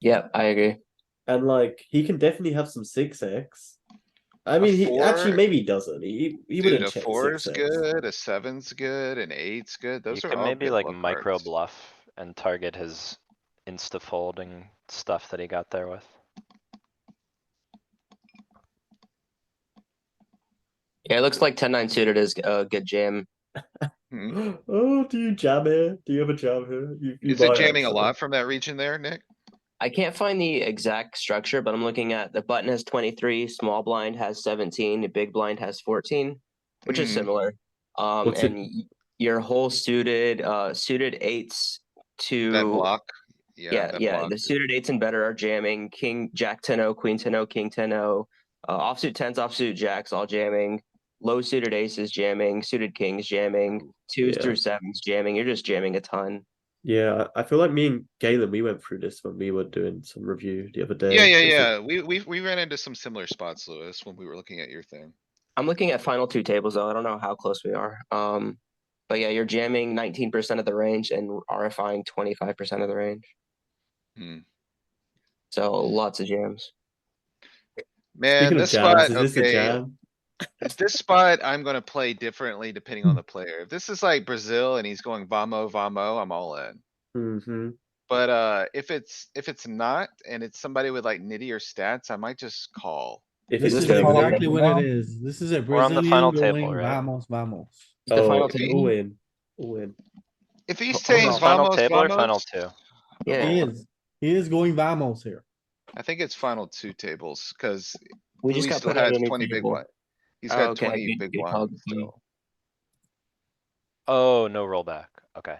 Yeah, I agree. and like he can definitely have some six X. I mean, he actually four- maybe he doesn't. He he Dude, wouldn't a check four is six X. good, a seven's good, an eight's good, You those are can all maybe good like bluff micro cards. bluff and target his insta folding stuff that he got there with. Yeah, it looks like ten nine suited is a good jam. Hmm. Oh, do you jam here? Do you have a jam here? You, you Is it might jamming a actually. lot from that region there, Nick? I can't find the exact structure, but I'm looking at the button has 23, small blind has 17, the big blind has 14, which is Mhm. similar. Um, What's it- and y- your whole suited, uh, suited eights to That block? yeah, that yeah, block. the suited eights and better are jamming. King, Jack 10 0, Queen 10 0, King 10 0, uh, offsuit tens, offsuit jacks, all jamming. Low suited aces jamming, suited kings jamming, twos Yeah. through sevens jamming. You're just jamming a ton. Yeah, I I feel like me and Galen we went through this when we were doing some review the other day. Yeah, yeah, It's like- yeah. We, we, we ran into some similar spots, Lewis, when we were looking at your thing. I'm looking at final two tables though. I don't know how close we are. Um, but yeah, you're jamming 19% of the range and RFIing 25% of the range. Hmm. So lots of jams. Man, Speaking this of jams, spot, is this a okay, jam? this spot, I'm gonna play differently depending on the player. If this is like Brazil and he's going vamo, vamo, I'm all in. hmm But, uh, if it's, if it's not, and it's somebody with like nittier stats, I might just call. If it's This Is is this gonna be exactly the what it is. This is a We're on the final Brazilian table, going right? vamos, vamos. The final okay. table. Oh, all in, all in. If he's Hold saying on, Final vamos, table or final vamos, two? He Yeah, is, he is going vamos here. I think it's final two tables, cuz we just Louis got still put out has a new twenty big table. one. He's Oh, got okay, twenty good- big good call, one good call. still. Oh, no rollback, okay.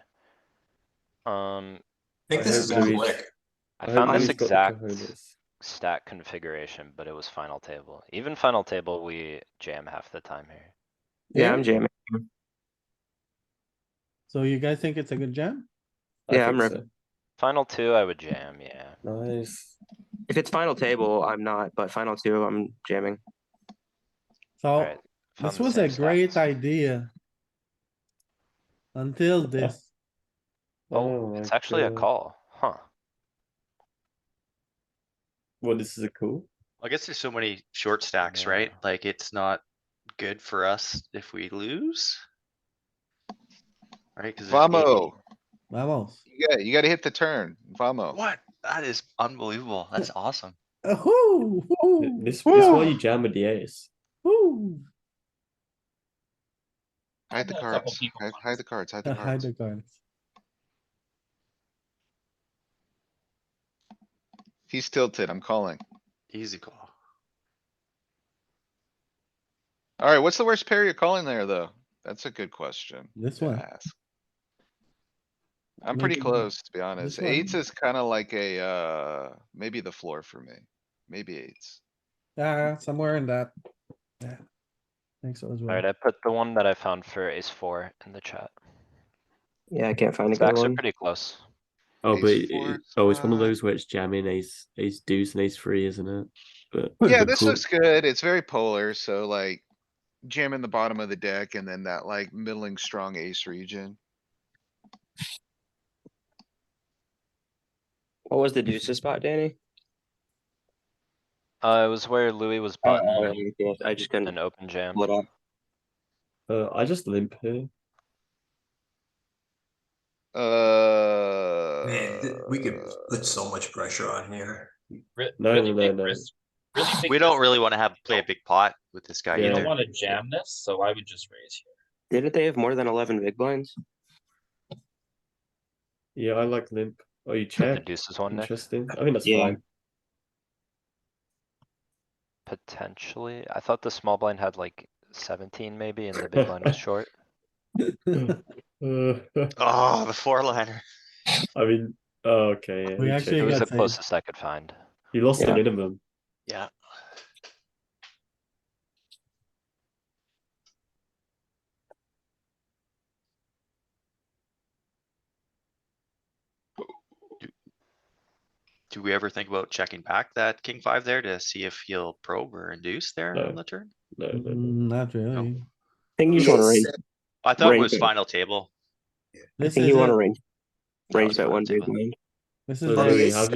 Um, I think I this hope is on Louis- lick. I hope found Louis this got the exact cojones. stat configuration, but it was final table. Even final table, we jam half the time here. Yeah, I'm jamming. So you guys think it's a good jam? I Yeah, I'm think ripping. Final two, I would jam, yeah. so. Nice. If it's final table, I'm not, but final two, I'm jamming. So Alright. this was a great idea. Until this, Oh, my it's actually a God. call, huh? Well, this is a cool. I guess there's so many short stacks, right? Yeah. Like it's not good for us if we lose. Right? 'Cause there's eight- Vamo, vamos. yeah, you gotta hit the turn, vamo. What? That is unbelievable. That's awesome. Ahoo, Th- woo, This, this why you jam with the ace. woo. Hide the Yeah, a couple cards, people hide, hide the cards, hide the Hide cards. the cards. He's tilted, I'm calling. Easy call. Alright, what's the worst pair you're calling there, though? That's a good question. This to one. ask. I'm pretty Maybe- close, to be honest. one. Eights is kinda like a, uh, maybe the floor for me. Maybe eights. Yeah, Ah, somewhere in that. Yeah. Thanks so as well. Alright, I put the one that I found for ace four in the chat. Yeah, I can't find a good Stacks are one. pretty close. Oh, Ace but four, it, oh, it's one of uh, five. those where it's jamming ace, ace deuce, and ace three, isn't it? But Yeah, but this cool. looks good. It's very polar, so like jamming the bottom of the deck and then that like middling strong ace region. What was the deuces spot, Danny? Uh, it was where Louis was Oh, button yeah, I just couldn't an open jam. pull it up. Uh, I just limp here. Uh. Uh, Man, th- we could uh, put so much pressure on here. Re- No, really no, big no. risk- really big We don't risk. really wanna have, play a big pot with this guy Yeah. You don't either. wanna jam this, so I would just raise here. Didn't they have more than 11 big blinds? Yeah, I like limp. Oh, you The check. deuces one, Nick, Interesting. I think that's Yeah. fine. potentially. I thought the small blind had like seventeen maybe and the big blind was short. Uh, Oh, the four liner. I mean, oh, okay. Yeah, We you actually It check. was got the saved. closest I could find. you lost the Yeah. minimum. Yeah. Do we ever think about checking back that king five there to see if he'll probe or induce there No. on the turn? No, no, no. Mm, Not Oh. really. I think you just want to raise. I thought it Right was there. final table. I This think is you want it. to range. That Range was bet fine, one big too. blind. This So is there it. we have